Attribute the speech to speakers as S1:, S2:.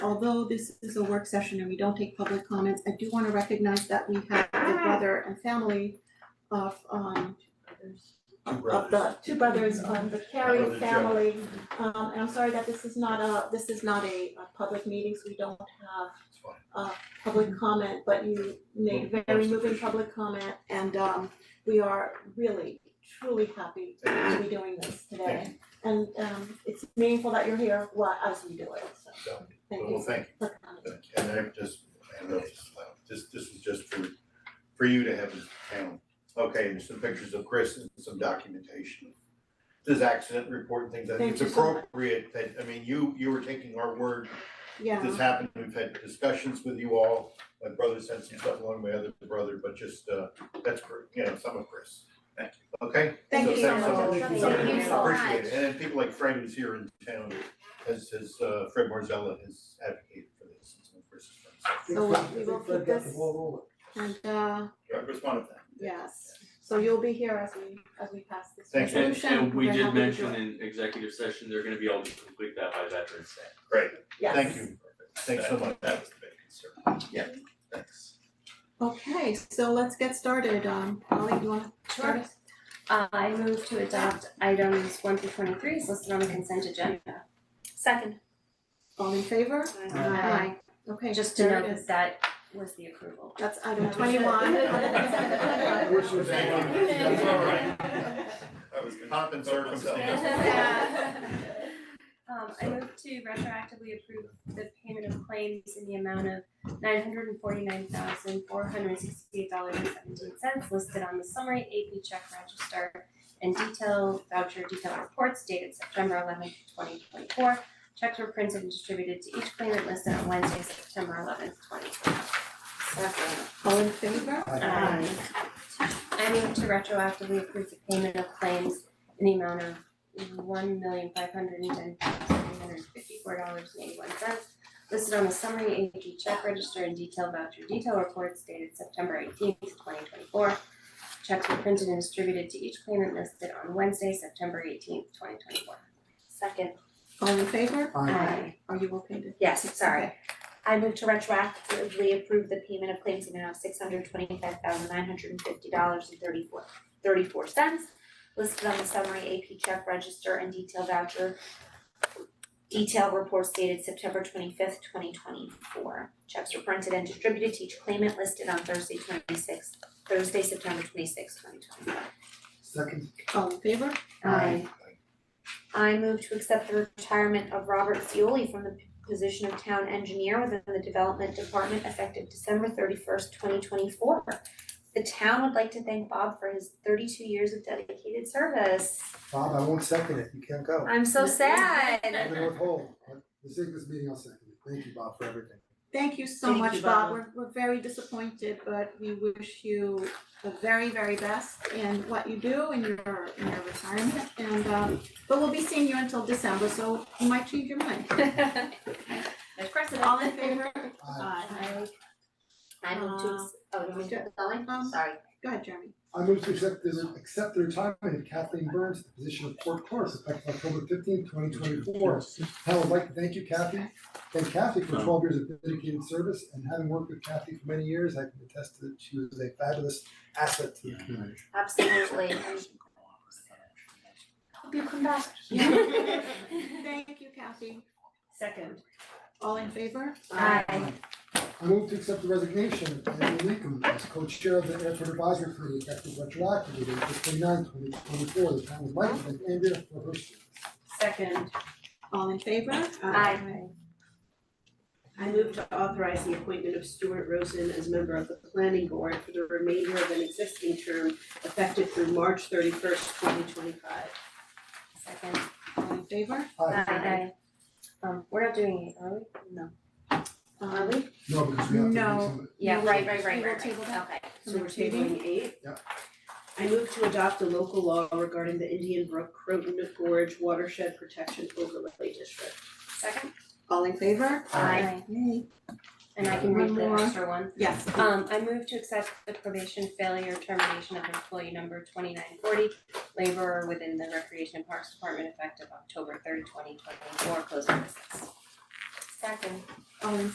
S1: although this is a work session and we don't take public comments, I do wanna recognize that we have the brother and family of um
S2: Two
S1: of
S2: brothers.
S1: the two brothers of the Carey
S2: Brother Joe.
S1: family. Um and I'm sorry that this is not a, this is not a a public meeting, so we don't have
S2: It's fine.
S1: public comment, but you made
S2: Well,
S1: very
S2: that's
S1: moving
S2: official.
S1: public comment and um we are really truly happy
S2: Thank
S1: to be doing this today. And um it's meaningful that you're here while as we do it, so
S2: So,
S1: thank
S2: Well,
S1: you
S2: thank
S1: for coming.
S2: you, and I just, I know this is loud, this, this was just for, for you to have as a panel. Okay, and some pictures of Chris and some documentation. This accident report and things, I think
S1: Thank
S2: it's
S1: you so much.
S2: appropriate that, I mean, you, you were taking our word, this
S1: Yeah,
S2: happened, we've had discussions with you all. My brother sent some stuff along, my other brother, but just, uh, that's, for, you know, some of Chris. Thank you. Okay?
S1: Thank
S2: So
S1: you
S2: thanks
S1: so
S2: much.
S1: much. Thank you so
S2: Appreciate it, and then people like Fred who's here in town, as his, uh, Fred Marzella has advocated for this, since when Chris is from. so.
S1: So we will keep this and uh
S2: Yeah, Chris wanted that.
S1: yes, so you'll be here as we as we pass this
S2: Thank you.
S3: And
S1: resolution.
S3: and we
S1: We're
S3: did
S1: happy to do
S3: mention
S1: it.
S3: in executive session, they're gonna be able to complete that by Veterans Day.
S2: Great,
S1: Yes.
S2: thank you, thanks so much.
S4: That was the big concern. Yeah, thanks.
S1: Okay, so let's get started. Um Holly, you wanna start us?
S5: Uh, I move to adopt items one through twenty-three as listed on the consent agenda. Second.
S1: All in favor?
S5: Aye.
S1: Okay,
S5: Just to
S1: there
S5: note
S1: it
S5: that
S1: is.
S5: that was the approval.
S1: That's item twenty-one.
S2: I wish it was anyone. That's all right.
S4: I was gonna.
S2: Pomp and circumstance.
S5: Um, I move to retroactively approve the payment of claims in the amount of nine hundred and forty-nine thousand, four hundred and sixty-eight dollars and seventeen cents listed on the summary AP check register and detail voucher detail reports dated September eleventh, twenty twenty-four. Checks were printed and distributed to each claimant listed on Wednesday, September eleventh, twenty
S1: All in favor?
S5: Aye. Um, I move to retroactively approve the payment of claims in the amount of one million five hundred and ten thousand nine hundred fifty-four dollars and eighty-one cents listed on the summary AP check register and detailed voucher detail reports dated September eighteenth, twenty twenty-four. Checks were printed and distributed to each claimant listed on Wednesday, September eighteenth, twenty twenty-four.
S6: Second,
S1: All in favor?
S5: Aye.
S1: Are you okay to?
S6: yes, sorry.
S1: Okay.
S6: I move to retroactively approve the payment of claims in the amount of six hundred twenty-five thousand nine hundred and fifty dollars and thirty-four, thirty-four cents listed on the summary AP check register and detail voucher detail reports dated September twenty-fifth, twenty twenty-four. Checks were printed and distributed to each claimant listed on Thursday twenty-sixth, Thursday, September twenty-sixth, twenty twenty-four.
S7: Second,
S1: All in favor?
S6: Aye. I move to accept the retirement of Robert Cioli from the position of town engineer within the development department effective December thirty first, twenty twenty four. The town would like to thank Bob for his thirty two years of dedicated service.
S7: Bob, I won't second it, you can't go.
S6: I'm so sad.
S7: I'm gonna withhold, this is this meeting, I'll second it, thank you, Bob, for everything.
S1: Thank you so
S8: Thank
S1: much,
S8: you,
S1: Bob.
S8: Bob.
S1: We're we're very disappointed, but we wish you the very, very best in what you do in your in your retirement. And um but we'll be seeing you until December, so you might change your mind.
S5: There's precedent.
S1: All in favor?
S7: I,
S1: Aye.
S6: I move to, ex- oh, you want me to keep going?
S1: Um,
S6: Sorry.
S1: Go ahead, Jeremy.
S7: I move to accept the, accept the retirement of Kathleen Burns, to the position of court clerk, effective October fifteenth, twenty twenty-four. I would like to thank you, Kathy, thank Kathy for twelve years of dedicated service, and having worked with Kathy for many years, I can attest that she was a fabulous asset to the community.
S6: Absolutely. And hope you come back.
S1: Thank you, Kathy.
S8: Second.
S1: All in favor?
S6: Aye.
S7: I move to accept the resignation of Andrew Leakum as co-chair of the Airport Advisory Committee effective retroactively to April 29, 2024. The town would like to thank Andrea for her service.
S8: Second,
S1: All in favor?
S6: Aye.
S8: I move to authorize the appointment of Stuart Rosen as member of the planning board for the remainder of an existing term effective through March thirty first, twenty twenty five.
S5: Second.
S1: All in favor?
S7: Aye.
S5: Aye. Um, we're not doing it, are we?
S8: No.
S1: Um,
S7: No, because we have to do
S1: No.
S7: something.
S5: Yeah,
S1: we will-
S6: Right, right, right,
S1: We will
S6: right,
S1: table
S6: right.
S1: that.
S6: Okay.
S8: So we're tabling eight.
S7: Yeah.
S8: I move to adopt a local law regarding the Indian Brook Croton Gorge Watershed Protection Overlay District.
S5: Second.
S1: All in favor?
S7: Aye.
S1: Yay.
S5: And I can read the
S1: One more.
S5: extra one.
S1: Yes.
S5: Um, I move to accept the probation failure termination of employee number twenty-nine forty, laborer within the Recreation and Parks Department effective October third, twenty twenty-four, closing business.
S9: Second.
S5: All in